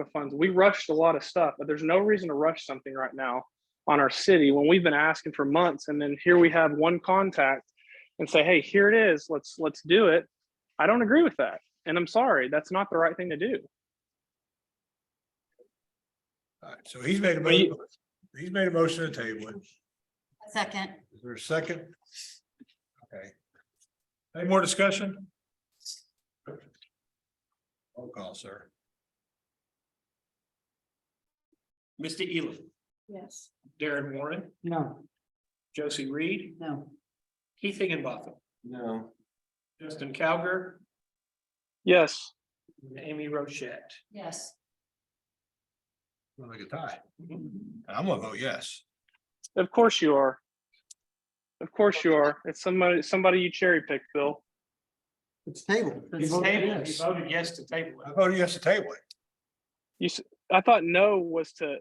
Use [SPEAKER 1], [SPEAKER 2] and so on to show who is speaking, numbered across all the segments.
[SPEAKER 1] of funds. We rushed a lot of stuff, but there's no reason to rush something right now on our city when we've been asking for months. And then here we have one contact and say, hey, here it is. Let's let's do it. I don't agree with that. And I'm sorry, that's not the right thing to do.
[SPEAKER 2] All right, so he's made a,
[SPEAKER 1] We-
[SPEAKER 2] mo- he's made a motion to table it.
[SPEAKER 3] Second,
[SPEAKER 2] Is there a second? Okay. Any more discussion? Roll call, sir.
[SPEAKER 4] Mr. Elam.
[SPEAKER 5] Yes.
[SPEAKER 4] Darren Warren,
[SPEAKER 5] No.
[SPEAKER 4] Josie Reed,
[SPEAKER 5] No.
[SPEAKER 4] Keith Higginbotham. No. Justin Cowger,
[SPEAKER 1] Yes,
[SPEAKER 4] and Amy Rochette.
[SPEAKER 3] yes,
[SPEAKER 2] Looks Like a tie. I'm gonna vote yes.
[SPEAKER 1] of course you are. Of course you are. It's somebody somebody you cherry picked, Bill.
[SPEAKER 5] It's tabled.
[SPEAKER 4] It's tabled. He voted yes to table
[SPEAKER 2] I
[SPEAKER 4] it.
[SPEAKER 2] voted yes to table it.
[SPEAKER 1] I thought no was to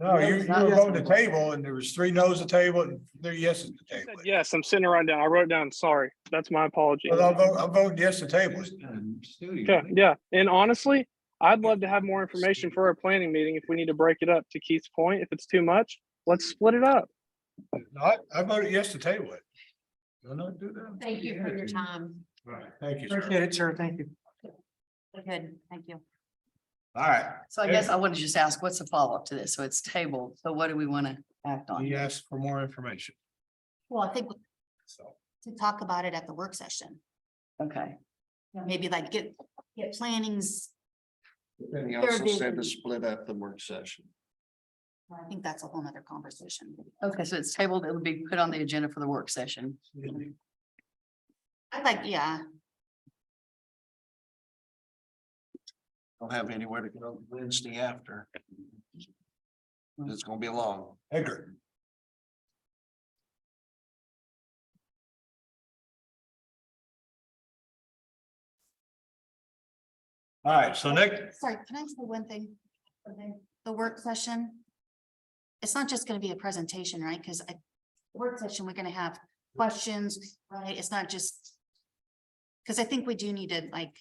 [SPEAKER 2] No, you,
[SPEAKER 5] it's
[SPEAKER 2] you
[SPEAKER 5] not
[SPEAKER 2] were
[SPEAKER 5] yes
[SPEAKER 2] voting
[SPEAKER 5] or
[SPEAKER 2] to
[SPEAKER 5] no.
[SPEAKER 2] table and there was three no's to table and three yeses to
[SPEAKER 1] I said
[SPEAKER 2] table. it.
[SPEAKER 1] Yes, I'm sitting around down. I wrote it down. Sorry. That's my apology.
[SPEAKER 2] But I'm voting, I'm voting yes to table it.
[SPEAKER 1] Yeah, yeah. And honestly, I'd love to have more information for our planning meeting if we need to break it up to Keith's point. If it's too much, let's split it up.
[SPEAKER 2] No, I, I voted yes to table it. No, no, do that.
[SPEAKER 3] thank you for your time.
[SPEAKER 2] All right, Thank you, sir.
[SPEAKER 5] Appreciate it, sir. Thank you.
[SPEAKER 3] Good, thank you.
[SPEAKER 2] All right,
[SPEAKER 6] So I guess I want to just ask, what's the follow-up to this? So it's tabled, so what do we want to act on?
[SPEAKER 2] he asked for more information,
[SPEAKER 3] Well, I think
[SPEAKER 2] so.
[SPEAKER 3] to talk about it at the work session,
[SPEAKER 6] Okay,
[SPEAKER 3] maybe like get, get plannings.
[SPEAKER 7] And he
[SPEAKER 3] They're
[SPEAKER 7] also said
[SPEAKER 3] busy.
[SPEAKER 7] to split up the work session.
[SPEAKER 3] I think that's a whole nother conversation.
[SPEAKER 6] okay, so it's tabled, it would be put on the agenda for the work session.
[SPEAKER 3] I'd like, yeah,
[SPEAKER 7] Don't have anywhere to go Wednesday after. It's gonna be long.
[SPEAKER 2] Edgar. All right, so Nick,
[SPEAKER 3] sorry, can I say one thing? The work session. It's not just gonna be a presentation, right? Cause I, work session, we're gonna have questions, right? It's not just. Cause I think we do need to like,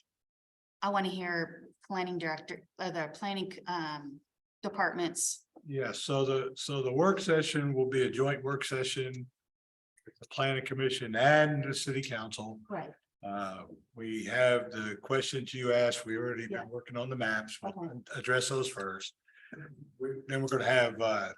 [SPEAKER 3] I wanna hear planning director, uh, the planning, um, departments.
[SPEAKER 2] yeah, so the, so the work session will be a joint work session. with The planning commission and the city council.
[SPEAKER 3] Right.
[SPEAKER 2] Uh, we have the questions you asked. We already
[SPEAKER 3] Yeah.
[SPEAKER 2] been working on the maps. We'll
[SPEAKER 3] Okay.
[SPEAKER 2] Address those first. We- Then we're gonna have uh.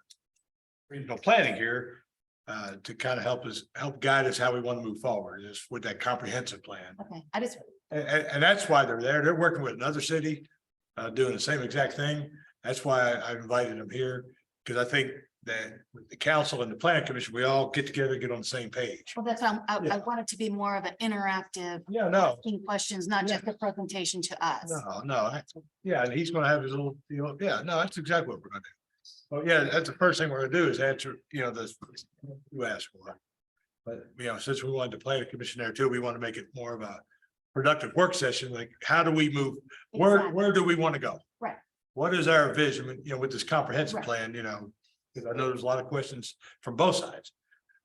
[SPEAKER 2] Regional planning here uh to kind of help us, help guide us how we want to move forward is with that comprehensive plan.
[SPEAKER 3] Okay, I just,
[SPEAKER 2] And and and that's why they're there. They're working with another city, uh doing the same exact thing. That's why I I invited them here. Cause I think that with the council and the planning commission, we all get together, get on the same page.
[SPEAKER 3] well, that's, what I'm- I, I
[SPEAKER 2] Yeah.
[SPEAKER 3] want it to be more of an interactive,
[SPEAKER 2] Yeah, no,
[SPEAKER 3] asking questions, not
[SPEAKER 2] Yeah.
[SPEAKER 3] just a presentation to us.
[SPEAKER 2] No, no, I- yeah, and he's gonna have his little, you know, yeah, no, that's exactly what we're gonna do. Well, yeah, that's the first thing we're gonna do is answer, you know, this, you asked for. But, you know, since we wanted to play the commission there too, we want to make it more of a productive work session, like, how do we move, where,
[SPEAKER 3] Exactly.
[SPEAKER 2] where do we want to go?
[SPEAKER 3] Right.
[SPEAKER 2] What is our vision, you know, with this comprehensive
[SPEAKER 3] Right.
[SPEAKER 2] plan, you know, 'cause I know there's a lot of questions from both sides.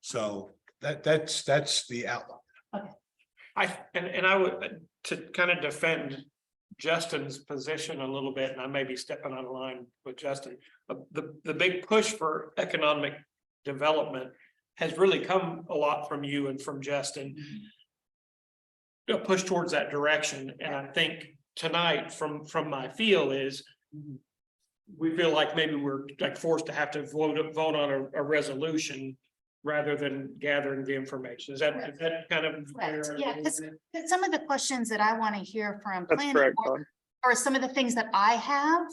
[SPEAKER 2] So that, that's, that's the outline.
[SPEAKER 4] I, and, and I would, to kind of defend Justin's position a little bit, and I may be stepping out of line with Justin. But the, the big push for economic development has really come a lot from you and from Justin. A push towards that direction, and I think tonight from, from my feel is we feel like maybe we're like forced to have to vote, vote on a, a resolution rather than gathering the information. Is that, is that kind of?
[SPEAKER 3] Correct, yeah, 'cause- 'Cause Some of the questions that I want to hear from.
[SPEAKER 1] That's
[SPEAKER 3] planning
[SPEAKER 1] correct,
[SPEAKER 3] board
[SPEAKER 1] Todd.
[SPEAKER 3] Or some of the things that I have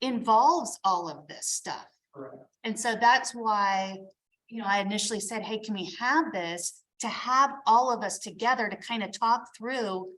[SPEAKER 3] involves all of this stuff.
[SPEAKER 4] Correct.
[SPEAKER 3] And so that's why, you know, I initially said, hey, can we have this? To have all of us together to kind of talk through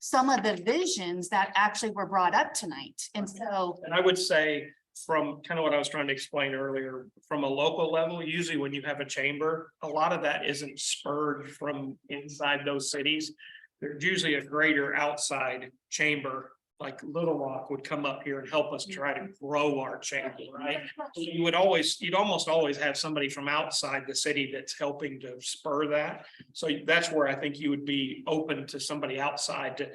[SPEAKER 3] some of the visions that actually were brought up tonight. And so,
[SPEAKER 4] And I would say from kind of what I was trying to explain earlier, from a local level, usually when you have a chamber, a lot of that isn't spurred from inside those cities. There's usually a greater outside chamber, like Little Rock would come up here and help us try to grow our chamber, right? You would always, you'd almost always have somebody from outside the city that's helping to spur that. So that's where I think you would be open to somebody outside to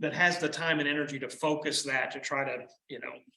[SPEAKER 4] that has the time and energy to focus that, to try to, you know,